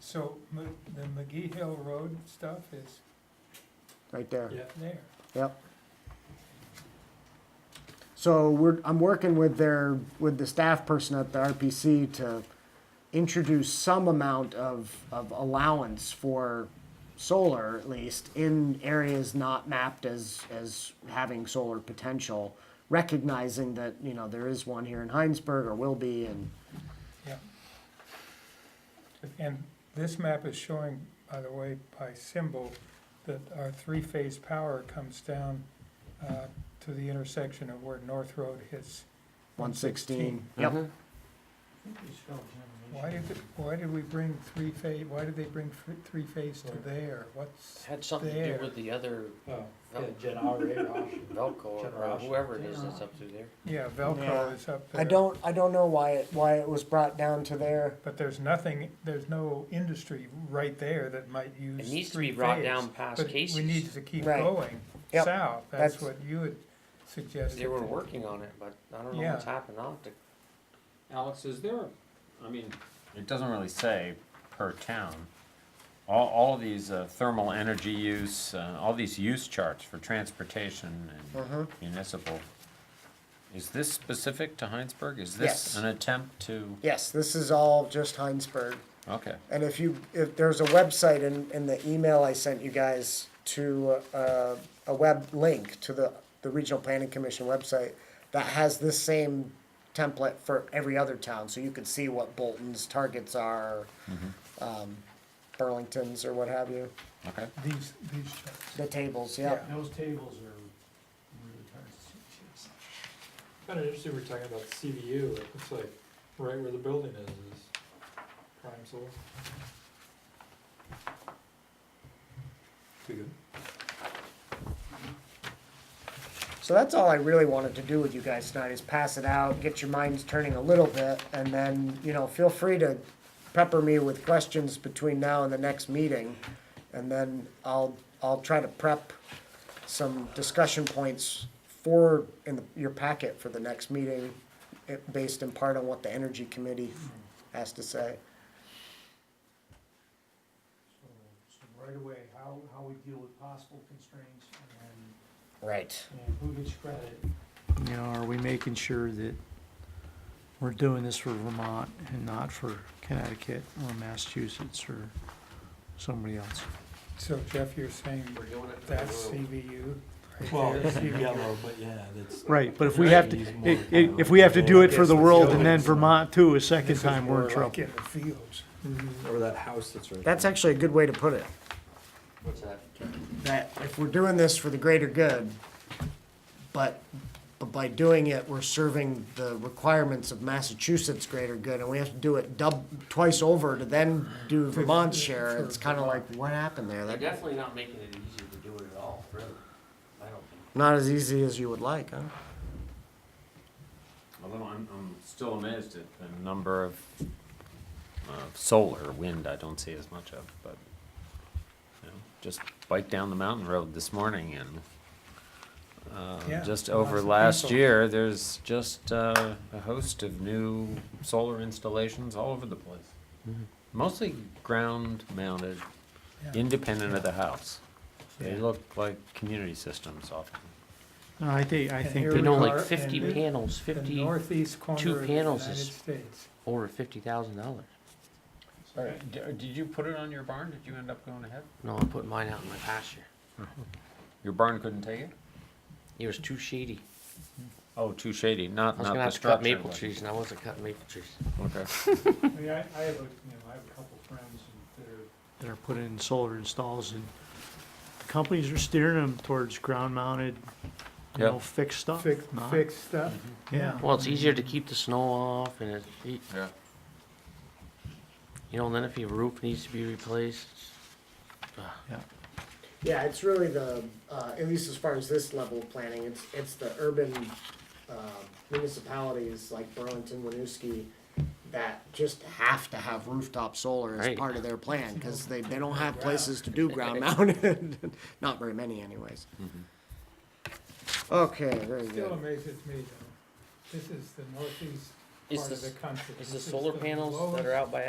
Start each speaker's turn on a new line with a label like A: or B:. A: So Ma- the McGee Hill Road stuff is
B: right there.
C: Yeah.
A: there.
B: Yep. So we're, I'm working with their, with the staff person at the RPC to introduce some amount of, of allowance for solar at least in areas not mapped as, as having solar potential, recognizing that, you know, there is one here in Heinsberg or will be and,
A: And this map is showing, by the way, by symbol, that our three-phase power comes down uh, to the intersection of where North Road hits.
B: 116.
D: Mm-hmm. Uh-huh.
B: Yep.
A: Why did, it- why did we bring three-phase, why did they bring fr- three-phase to there? What's,
D: Had something to
A: There.
D: do with the other
C: Yeah, generator option.
D: Velco or
C: Generation.
D: whoever it is that's up through there.
A: yeah,
B: Yeah.
A: Velcro is up there.
B: I don't, I don't know why it, why it was brought down to there.
A: But there's nothing, there's no industry right there that might use
D: It
A: three-phase.
D: needs to be brought down past
A: But we need
D: Casey's.
A: to keep
B: Right.
A: going
B: Yep.
A: south, that's
B: That's-
A: what you had suggested.
D: They were working on it, but I don't know
A: Yeah.
D: what's happened. I'll have to
C: Alex, is there, I mean,
E: It doesn't really say per town. All, all of these uh, thermal energy use, uh, all these use charts for transportation
B: Uh-huh.
E: and municipal. Is this specific to Heinsberg?
B: Yes.
E: Is this an attempt to,
B: Yes, this is all just Heinsberg.
E: okay,
B: And if you, if there's a website in, in the email I sent you guys to, uh, a web link to the, the Regional Planning Commission website that has this same template for every other town, so you could see what Bolton's targets are, um, Burlington's or what have you,
E: okay.
A: These, these charts.
B: the tables, yeah.
F: Those tables are really hard to see.
C: kinda interesting, we're talking about CVU, it looks like right where the building is, is prime solar. We good?
B: So that's all I really wanted to do with you guys tonight is pass it out, get your minds turning a little bit, and then, you know, feel free to pepper me with questions between now and the next meeting. And then I'll, I'll try to prep some discussion points for, in your packet for the next meeting, eh, based in part on what the energy committee has to say.
F: So, so right away, how, how we deal with possible constraints and,
B: Right.
F: and who gets credit.
G: You know, are we making sure that we're doing this for Vermont and not for Connecticut or Massachusetts or somebody else?
A: So Jeff, you're saying
D: We're doing it for the
A: that's
D: road.
A: CVU? right
C: Well,
A: there?
C: it's yellow, but yeah, that's.
G: Right, but if we have to, i- i- if we have to do it for the world and then Vermont too, a second
A: This is
G: time,
A: more
G: we're in
A: like
G: trouble.
A: in the fields.
C: Or that house that's right.
B: That's actually a good way to put it,
D: What's that?
B: that if we're doing this for the greater good, but, but by doing it, we're serving the requirements of Massachusetts' greater good, and we have to do it dub, twice over to then do Vermont's share, it's kinda like, what happened there?
D: They're
B: That-
D: definitely not making it easy to do it at all, really. I don't think.
B: Not as easy as you would like, huh?
E: Although I'm, I'm still amazed at the number of, uh, solar, wind I don't see as much of, but, you know, just bike down the mountain road this morning and,
A: Yeah,
E: uh,
A: lots
E: just over
A: of
E: last
A: people.
E: year, there's just, uh, a host of new solar installations all over the place.
A: Mm-hmm.
E: Mostly ground mounted,
A: Yeah.
E: independent of the house. They
A: Yeah.
E: look like community systems often.
G: No, I think, I
A: And
G: think,
A: here
G: that-
A: we
D: You know,
A: are
D: like fifty
A: in-
D: panels,
A: The
D: fifty,
A: northeast
D: two
A: corner of the United
D: panels is-
A: States.
D: over fifty thousand dollars.
E: Did you put it on your barn? Did you end up going ahead?
D: No, I'm putting mine out in my pasture.
E: Your barn couldn't take it?
D: It was too shady.
E: Oh, too shady, not,
D: I was
E: not
D: gonna
E: the
D: have to cut
E: structure.
D: maple
E: but-
D: trees and I wasn't cutting maple trees.
E: Okay.
F: I mean, I, I have a, you know, I have a couple friends that are
G: that are put in solar installs and companies are steering them towards ground mounted, you
E: Yep.
G: know, fixed stuff.
A: Fix,
G: not-
A: fix stuff,
G: Yeah.
A: yeah.
D: Well, it's easier to keep the snow off and it, you
E: Yeah.
D: know, and then if your roof needs to be replaced,
B: Yeah, it's really the, uh, at least as far as this level of planning, it's, it's the urban, uh, municipalities like Burlington, Winooski that just have to have rooftop solar as
D: Right.
B: part of their plan, cause they, they don't have places to do ground mounted, not very many anyways. Okay, very
A: Still
B: good.
A: amazes me though, this is the northeast
D: Is
A: part of
D: this-
A: the country.
D: is the
A: This
D: solar
A: the
D: panels that
A: lowest-
D: are out by